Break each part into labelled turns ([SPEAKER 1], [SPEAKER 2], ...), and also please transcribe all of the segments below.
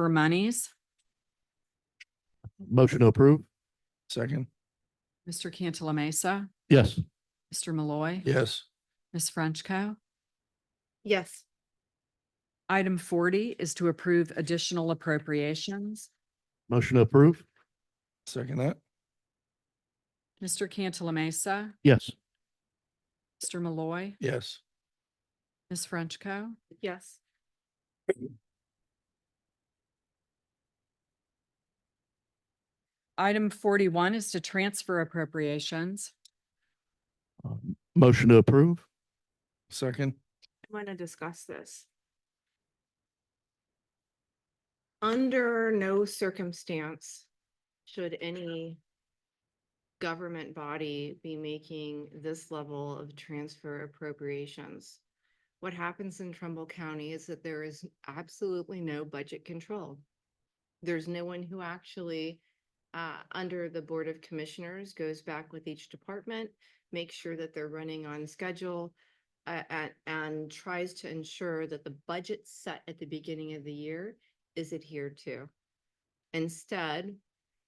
[SPEAKER 1] for monies.
[SPEAKER 2] Motion to approve?
[SPEAKER 3] Second.
[SPEAKER 1] Mr. Cantala Mesa,
[SPEAKER 2] Yes.
[SPEAKER 1] Mr. Malloy.
[SPEAKER 3] Yes.
[SPEAKER 1] Ms. Frenchco.
[SPEAKER 4] yes,
[SPEAKER 1] Item forty is to approve additional appropriations.
[SPEAKER 2] Motion to approve?
[SPEAKER 3] Second that.
[SPEAKER 1] Mr. Cantala Mesa,
[SPEAKER 2] Yes.
[SPEAKER 1] Mr. Malloy,
[SPEAKER 3] Yes.
[SPEAKER 1] Ms. Frenchco.
[SPEAKER 4] yes,
[SPEAKER 1] Item forty-one is to transfer appropriations.
[SPEAKER 2] Um, Motion to approve?
[SPEAKER 3] Second.
[SPEAKER 4] I want to discuss this. Under no circumstance should any government body be making this level of transfer appropriations. What happens in Trumbull County is that there is absolutely no budget control. There's no one who actually, uh, under the Board of Commissioners, goes back with each department, makes sure that they're running on schedule, uh, and, and tries to ensure that the budget set at the beginning of the year is adhered to. Instead,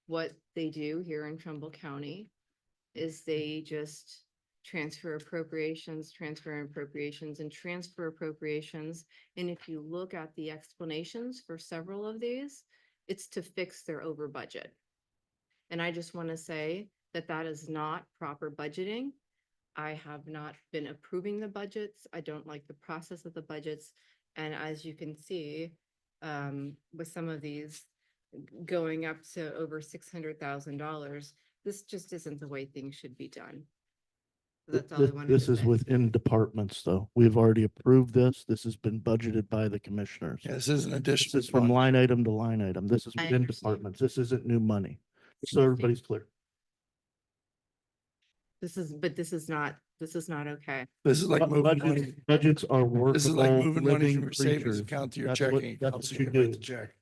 [SPEAKER 4] what they do here in Trumbull County is they just transfer appropriations, transfer appropriations, and transfer appropriations. And if you look at the explanations for several of these, it's to fix their over budget. And I just want to say that that is not proper budgeting. I have not been approving the budgets. I don't like the process of the budgets. And as you can see, um, with some of these g- going up to over six hundred thousand dollars, this just isn't the way things should be done. That's all I
[SPEAKER 2] This-
[SPEAKER 4] wanted to
[SPEAKER 2] This is
[SPEAKER 4] say.
[SPEAKER 2] within departments, though. We've already approved this. This has been budgeted by the commissioners.
[SPEAKER 3] Yeah, This is an
[SPEAKER 2] This
[SPEAKER 3] addition.
[SPEAKER 2] is from line item to line item. This is
[SPEAKER 4] I
[SPEAKER 2] within
[SPEAKER 4] understand.
[SPEAKER 2] departments. This isn't new money. So everybody's clear.
[SPEAKER 4] This is, but this is not, this is not okay.
[SPEAKER 3] This is like
[SPEAKER 2] Bu-
[SPEAKER 3] moving
[SPEAKER 2] budgets-
[SPEAKER 3] money.
[SPEAKER 2] Budgets are workable.
[SPEAKER 3] This is like moving money
[SPEAKER 2] living
[SPEAKER 3] from your savings
[SPEAKER 2] creatures.
[SPEAKER 3] account to your
[SPEAKER 2] That's what-
[SPEAKER 3] checking.
[SPEAKER 2] that's
[SPEAKER 3] account
[SPEAKER 2] what
[SPEAKER 3] so
[SPEAKER 2] you
[SPEAKER 3] you can write
[SPEAKER 2] do.
[SPEAKER 3] the check.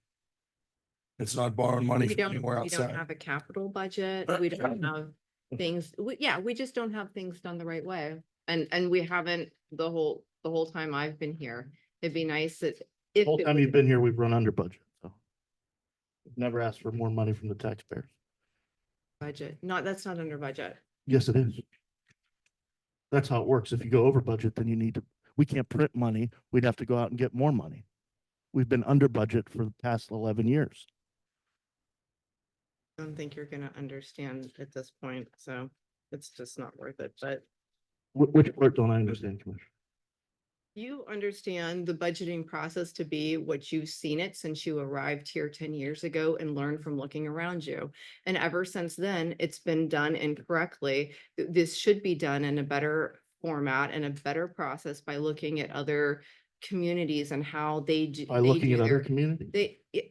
[SPEAKER 3] It's not borrowing money
[SPEAKER 4] We
[SPEAKER 3] from
[SPEAKER 4] don't,
[SPEAKER 3] anywhere
[SPEAKER 4] we don't
[SPEAKER 3] outside.
[SPEAKER 4] have a capital budget. We don't have things, we, yeah, we just don't have things done the right way. And, and we haven't the whole, the whole time I've been here. It'd be nice that if.
[SPEAKER 2] Whole
[SPEAKER 4] it
[SPEAKER 2] time
[SPEAKER 4] was-
[SPEAKER 2] you've been here, we've run under budget, so. Never asked for more money from the taxpayers.
[SPEAKER 4] Budget, not, that's not under budget.
[SPEAKER 2] Yes, it is. That's how it works. If you go over budget, then you need to, we can't print money. We'd have to go out and get more money. We've been under budget for the past eleven years.
[SPEAKER 4] I don't think you're gonna understand at this point, so it's just not worth it, but
[SPEAKER 2] Wh- Which part don't I understand, Commissioner?
[SPEAKER 4] you understand the budgeting process to be what you've seen it since you arrived here ten years ago and learned from looking around you. And ever since then, it's been done incorrectly. Th- This should be done in a better format and a better process by looking at other communities and how they do.
[SPEAKER 2] By
[SPEAKER 4] they
[SPEAKER 2] looking
[SPEAKER 4] do
[SPEAKER 2] at other
[SPEAKER 4] their-
[SPEAKER 2] communities?
[SPEAKER 4] They, y-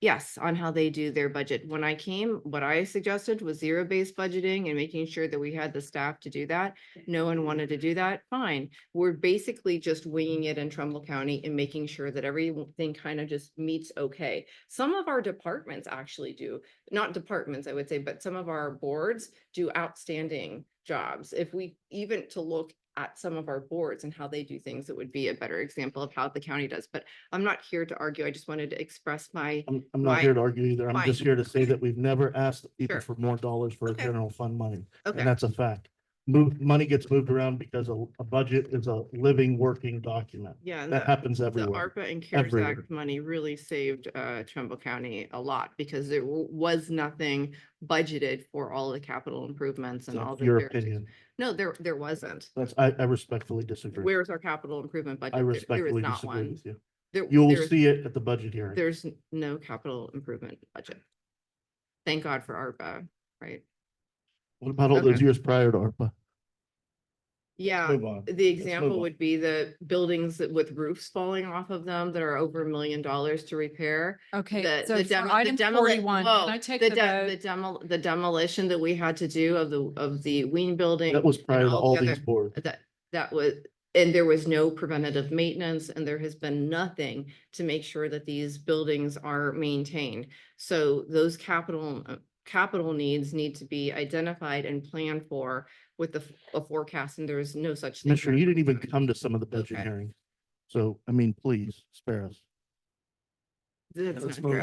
[SPEAKER 4] yes, on how they do their budget. When I came, what I suggested was zero-based budgeting and making sure that we had the staff to do that. No one wanted to do that, fine. We're basically just winging it in Trumbull County and making sure that everything kind of just meets okay. Some of our departments actually do, not departments, I would say, but some of our boards do outstanding jobs. If we even to look at some of our boards and how they do things, it would be a better example of how the county does. But I'm not here to argue. I just wanted to express my,
[SPEAKER 2] I'm, I'm not
[SPEAKER 4] Why-
[SPEAKER 2] here to argue either. I'm
[SPEAKER 4] why?
[SPEAKER 2] just here to say that we've never asked people
[SPEAKER 4] Sure.
[SPEAKER 2] for more dollars for
[SPEAKER 4] Okay.
[SPEAKER 2] general fund money. And
[SPEAKER 4] okay,
[SPEAKER 2] that's a fact. Move, money gets moved around because a, a budget is a living, working document.
[SPEAKER 4] yeah. and
[SPEAKER 2] That
[SPEAKER 4] the-
[SPEAKER 2] happens
[SPEAKER 4] The
[SPEAKER 2] everywhere.
[SPEAKER 4] ARPA and CARES
[SPEAKER 2] everywhere.
[SPEAKER 4] Act money really saved uh, Trumbull County a lot because there w- was nothing budgeted for all the capital improvements and all
[SPEAKER 2] That's
[SPEAKER 4] the.
[SPEAKER 2] Your
[SPEAKER 4] various-
[SPEAKER 2] opinion.
[SPEAKER 4] No, there, there wasn't.
[SPEAKER 2] That's, I, I respectfully disagree.
[SPEAKER 4] Where's our capital improvement budget?
[SPEAKER 2] I
[SPEAKER 4] There- there is
[SPEAKER 2] respectfully
[SPEAKER 4] not
[SPEAKER 2] disagree
[SPEAKER 4] one.
[SPEAKER 2] with you.
[SPEAKER 4] There-
[SPEAKER 2] You'll
[SPEAKER 4] there's-
[SPEAKER 2] see it at the budget hearing.
[SPEAKER 4] There's n- no capital improvement budget. Thank God for ARPA, right?
[SPEAKER 2] What about all those
[SPEAKER 4] Okay. Um,
[SPEAKER 2] years prior to ARPA?
[SPEAKER 4] Yeah,
[SPEAKER 2] Move on.
[SPEAKER 4] the example
[SPEAKER 2] on.
[SPEAKER 4] would be the buildings that- with roofs falling off of them that are over a million dollars to repair.
[SPEAKER 1] Okay,
[SPEAKER 4] The,
[SPEAKER 1] so
[SPEAKER 4] the
[SPEAKER 1] for
[SPEAKER 4] demo, the
[SPEAKER 1] item
[SPEAKER 4] demoli-
[SPEAKER 1] forty-one, can I
[SPEAKER 4] whoa,
[SPEAKER 1] take
[SPEAKER 4] the
[SPEAKER 1] the
[SPEAKER 4] de- the
[SPEAKER 1] vote?
[SPEAKER 4] demo, the demolition that we had to do of the, of the Ween building.
[SPEAKER 2] That was
[SPEAKER 4] and
[SPEAKER 2] prior to all
[SPEAKER 4] the
[SPEAKER 2] these
[SPEAKER 4] other-
[SPEAKER 2] boards.
[SPEAKER 4] That, that was, and there was no preventative maintenance and there has been nothing to make sure that these buildings are maintained. So those capital, uh, capital needs need to be identified and planned for with the, f- a forecast and there is no such. thing
[SPEAKER 2] Commissioner,
[SPEAKER 4] here.
[SPEAKER 2] you didn't even come to some of the budget
[SPEAKER 4] Okay.
[SPEAKER 2] hearings. So, I mean, please spare us.
[SPEAKER 4] That's
[SPEAKER 3] Let's
[SPEAKER 4] not
[SPEAKER 3] move
[SPEAKER 4] true.